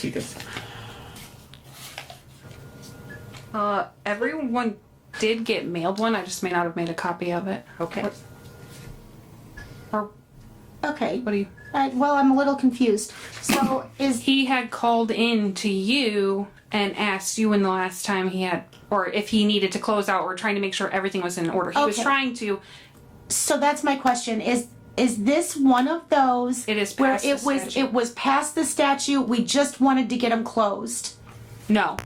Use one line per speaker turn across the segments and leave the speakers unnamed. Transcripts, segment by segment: tickets.
Uh, everyone did get mailed one. I just may not have made a copy of it.
Okay.
What- Or
Okay.
what do you?
I, well, I'm a little confused. So is
He had called in to you and asked you when the last time he had, or if he needed to close out, or trying to make sure everything was in order. He was
Okay.
trying to.
so that's my question. Is is this one of those
It is
where
past
it
the
was
statute.
it was past the statute? We just wanted to get them closed.
No,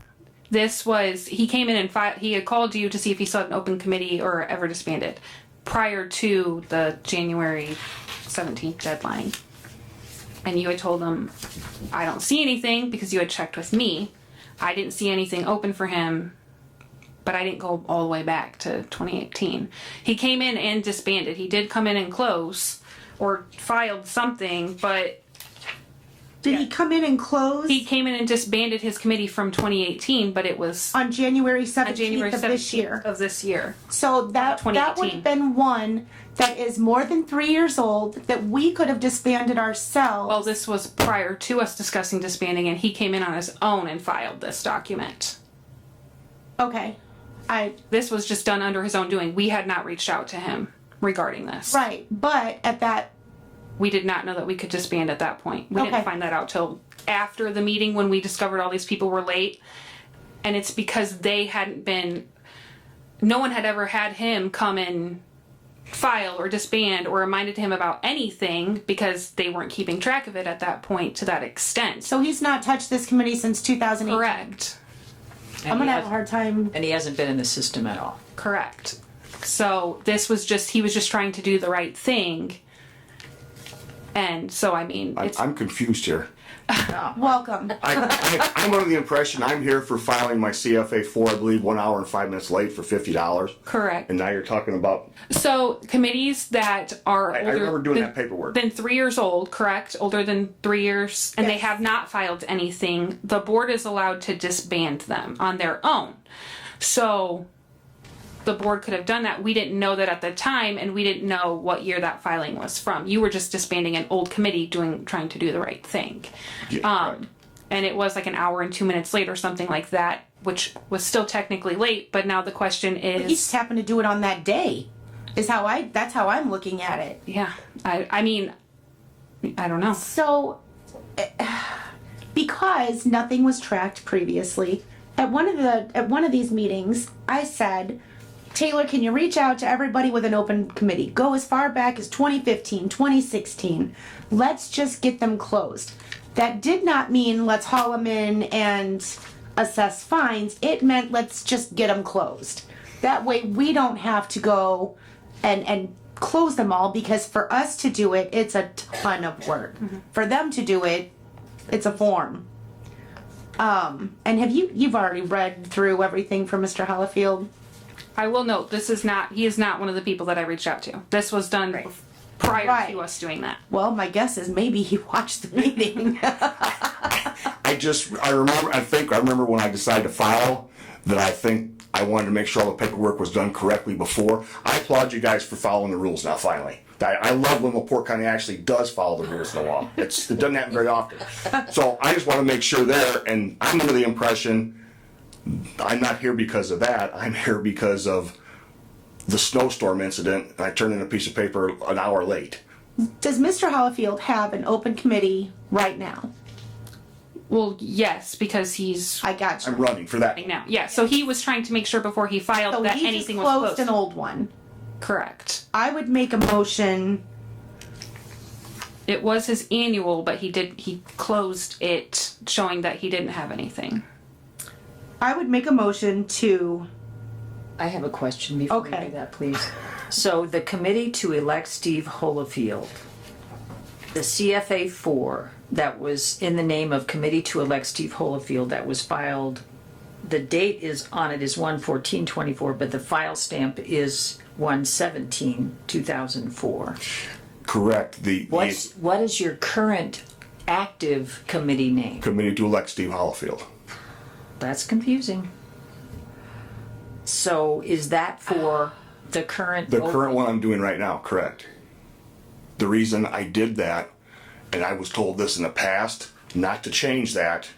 this was he came in and fi- he had called you to see if he still had an open committee or ever disbanded prior to the January seventeenth deadline. And you had told him, I don't see anything because you had checked with me. I didn't see anything open for him, but I didn't go all the way back to 2018. He came in and disbanded. He did come in and close or filed something, but
Did he come in and close
he came in and disbanded his committee from 2018, but it was
on January
on
seventeenth
January
of this
17th
year?
of this year.
So that that would
2018.
have been one that is more than three years old that we could have disbanded ourselves.
Well, this was prior to us discussing disbanding, and he came in on his own and filed this document.
okay, I
This was just done under his own doing. We had not reached out to him regarding this.
right, but at that
We did not know that we could disband at that point. We
Okay.
didn't find that out till after the meeting when we discovered all these people were late. And it's because they hadn't been, no one had ever had him come and file or disband or reminded him about anything because they weren't keeping track of it at that point to that extent. So,
so he's not touched this committee since two thousand eight.
correct.
I'm
And he,
gonna have a
has,
hard time.
and he hasn't been in the system at all.
Correct. So this was just he was just trying to do the right thing. And so I mean,
I'm,
it's
I'm confused here.
Welcome.
I, I, I'm under the impression I'm here for filing my CFA four, I believe, one hour and five minutes late for fifty dollars.
correct.
And now you're talking about,
So committees that are
I
older
remember doing
than,
that paperwork.
than three years old, correct? Older than three years, and they
Yes.
have not filed anything. The board is allowed to disband them on their own. So the board could have done that. We didn't know that at the time, and we didn't know what year that filing was from. You were just disbanding an old committee, doing trying to do the right thing.
Yeah,
um,
right.
and it was like an hour and two minutes late or something like that, which was still technically late. But now the question
He just
is,
happened to do it on that day. Is how I. That's how I'm looking at it.
yeah, I, I mean, I don't know.
So, eh, because nothing was tracked previously, at one of the at one of these meetings, I said, "Taylor, can you reach out to everybody with an open committee? Go as far back as 2015, 2016. Let's just get them closed." That did not mean let's haul them in and assess fines. It meant let's just get them closed. That way, we don't have to go and and close them all because for us to do it it's a ton of work for them to do it it's a form um and have you you've already read through everything from mr hollifield
I will note this is not he is not one of the people that I reached out to. This was done prior
Right.
to us doing that.
well my guess is maybe he watched the meeting
I just, I remember, I think, I remember when I decided to file, that I think I wanted to make sure all the paperwork was done correctly before. I applaud you guys for following the rules now finally. I, I love when LaPorte County actually does follow the rules and the law. It's, it doesn't happen very often. So I just wanna make sure there, and I'm under the impression, I'm not here because of that, I'm here because of the snowstorm incident, and I turned in a piece of paper an hour late.
does mr hollifield have an open committee right now
Well, yes, because he's
i got you
I'm running for that.
right now. Yeah, so he was trying to make sure before he filed
so
that
he just
anything
closed,
was closed.
an old one
Correct.
i would make a motion
It was his annual, but he did he closed it showing that he didn't have anything.
i would make a motion to
I have a question before you
Okay.
do that, please. So the committee to elect Steve Holofield, the CFA four that was in the name of committee to elect Steve Holofield that was filed. The date is on it is one fourteen twenty four, but the file stamp is one seventeen two thousand four.
Correct, the, the
What's what is your current active committee name?
committee to elect Steve Hollifield.
That's confusing. So is that for the current?
The current one I'm doing right now, correct. The reason I did that, and I was told this in the past, not to change that,